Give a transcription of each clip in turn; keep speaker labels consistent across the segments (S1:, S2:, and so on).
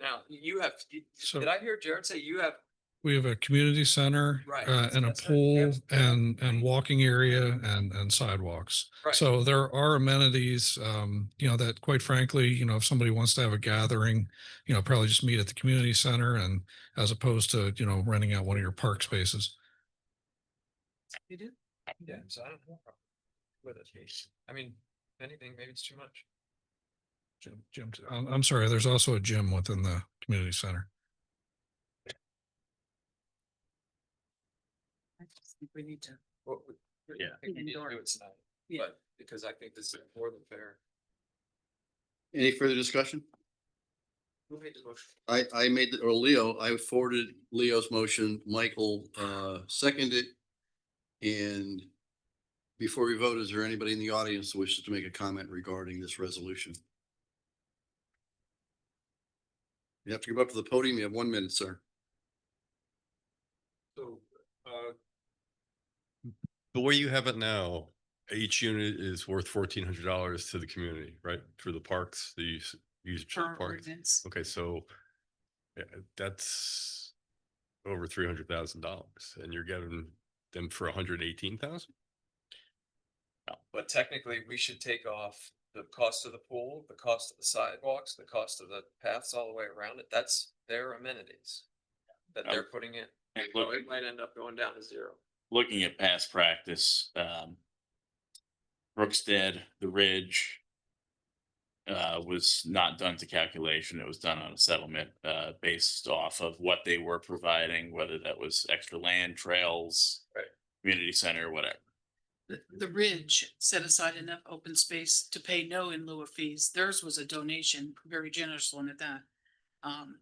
S1: Now, you have,
S2: So-
S1: did I hear Jared say you have,
S2: We have a community center
S1: Right,
S2: uh, and a
S1: that's right, yeah.
S2: pool and, and walking area and, and sidewalks.
S1: Right.
S2: So there are amenities, um, you know, that quite frankly, you know, if somebody wants to have a gathering, you know, probably just meet at the community center and as opposed to, you know, renting out one of your park spaces.
S1: you do? Yeah, so I don't know. With it, I mean, if anything, maybe it's too much.
S2: Gym, gym, I'm, I'm sorry, there's also a gym within the community center.
S3: I just think we need to,
S1: What we- we-
S4: Yeah.
S1: I think we need to do it tonight,
S3: yeah,
S1: but because I think this is more than fair.
S4: Any further discussion?
S1: Who made the motion?
S4: I, I made, the- or Leo, I forwarded Leo's motion, Michael, uh, seconded. And before we vote, is there anybody in the audience who wishes to make a comment regarding this resolution? You have to go up to the podium. You have one minute, sir.
S1: So, uh,
S5: the way you have it now, each unit is worth fourteen hundred dollars to the community, right? Through the parks, the use, use of
S3: per
S5: parks.
S3: ordinance.
S5: Okay, so yeah, that's over three hundred thousand dollars and you're getting them for hundred and eighteen thousand?
S1: but technically, we should take off the cost of the pool, the cost of the sidewalks, the cost of the paths all the way around it. That's their amenities. That they're putting in.
S6: And
S1: So
S6: look,
S1: it might end up going down to zero.
S6: looking at past practice, um. Brookstead, the Ridge. Uh, was not done to calculation. It was done on a settlement, uh, based off of what they were providing, whether that was extra land, trails.
S1: Right.
S6: Community center, whatever.
S3: The, the Ridge set aside enough open space to pay no in lieu of fees. Theirs was a donation, very generous one at that. Um,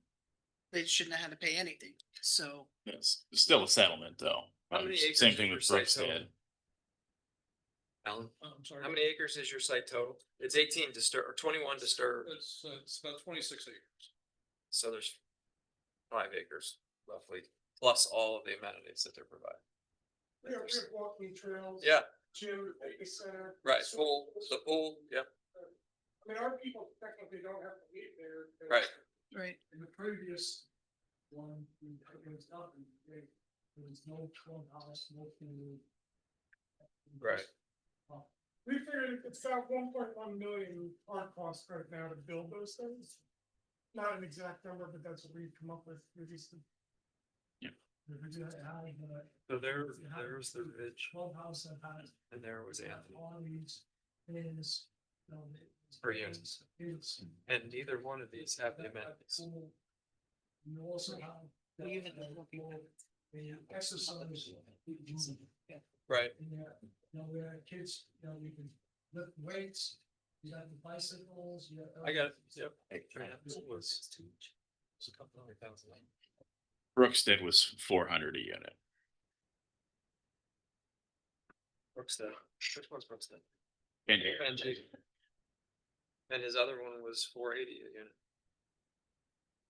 S3: they shouldn't have had to pay anything, so
S6: It's still a settlement, though.
S1: How many
S6: Um,
S1: acres
S6: Same
S1: is
S6: thing
S1: your
S6: with
S1: site total?
S6: Brookstead.
S1: Alan,
S2: I'm
S1: how many acres is your site total? It's eighteen disturb, or twenty-one disturb,
S2: It's, it's about twenty-six acres.
S1: so there's five acres roughly, plus all of the amenities that they're providing.
S7: Yeah, we have walking trails.
S1: Yeah,
S7: Gym, fitness center.
S1: right,
S7: so-
S1: pool, the pool, yep,
S7: I mean, our people technically don't have to eat there. 'cause
S1: Right.
S3: Right.
S7: In the previous one, we- it was nothing, they- there was no clubhouse, no food.
S1: Right.
S7: We figured it's about one point one million our cost right now to build those things. Not an exact number, but that's what we've come up with, we just.
S6: Yeah.
S7: We figured out how to do it.
S1: so there, there was the ridge,
S7: Clubhouse and how to
S1: and there was Anthony,
S7: all these things, you know, it's-
S1: For units.
S7: It's.
S1: and neither one of these have the amenities.
S7: You also have. the-
S3: We even look at it.
S7: The exercise. room
S1: Right,
S7: In there, you know, where kids, you know, you can lift weights, you got the bicycles, you got.
S1: I got it, yep.
S6: Brookstead was four hundred a unit.
S1: Brookstead, which one's Brookstead?
S6: And
S1: Benji. And his other one was four eighty a unit.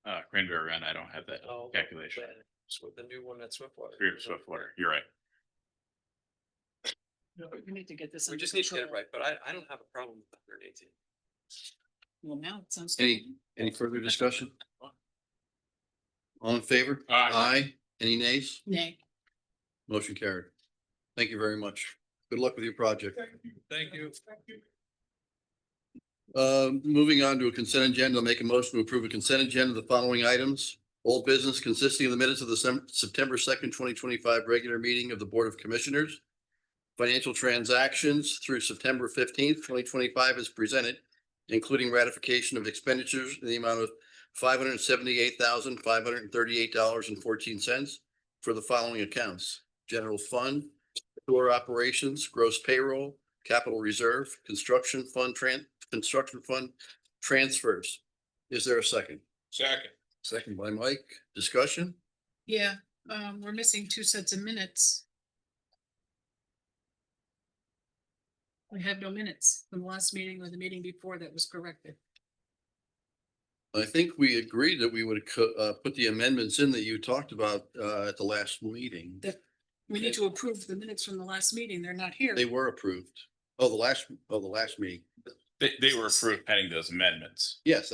S6: uh, Cranberry Run, I don't have that
S1: Oh,
S6: calculation.
S1: but Swi- The new one at Swiftwater.
S6: Three of Swiftwater, you're right.
S3: We need to get this.
S1: We
S3: under
S1: just need to get it
S3: control.
S1: right, but I, I don't have a problem with hundred and eighteen.
S3: Well, now it sounds.
S4: Any- Any further discussion? All in favor?
S6: Aye.
S4: Any nays?
S3: Nay.
S4: Motion carried. Thank you very much. Good luck with your project.
S1: Thank you.
S7: Thank you.
S4: Uh, moving on to a consent agenda, I'll make a motion to approve a consent agenda of the following items. Old business consisting of the minutes of the Sem- September second, twenty twenty-five regular meeting of the Board of Commissioners. Financial transactions through September fifteenth, twenty twenty-five is presented, including ratification of expenditures in the amount of five hundred seventy-eight thousand, five hundred thirty-eight dollars and fourteen cents for the following accounts. General fund, store operations, gross payroll, capital reserve, construction fund tran- construction fund transfers. Is there a second?
S6: Second.
S4: Second by Mike. Discussion?
S3: Yeah, um, we're missing two sets of minutes. We have no minutes from the last meeting or the meeting before that was corrected.
S4: I think we agreed that we would co- uh, put the amendments in that you talked about uh, at the last meeting.
S3: That we need to approve the minutes from the last meeting. They're not here.
S4: They were approved. Oh, the last, oh, the last meeting.
S6: They, they were approved pending those amendments.
S4: Yes,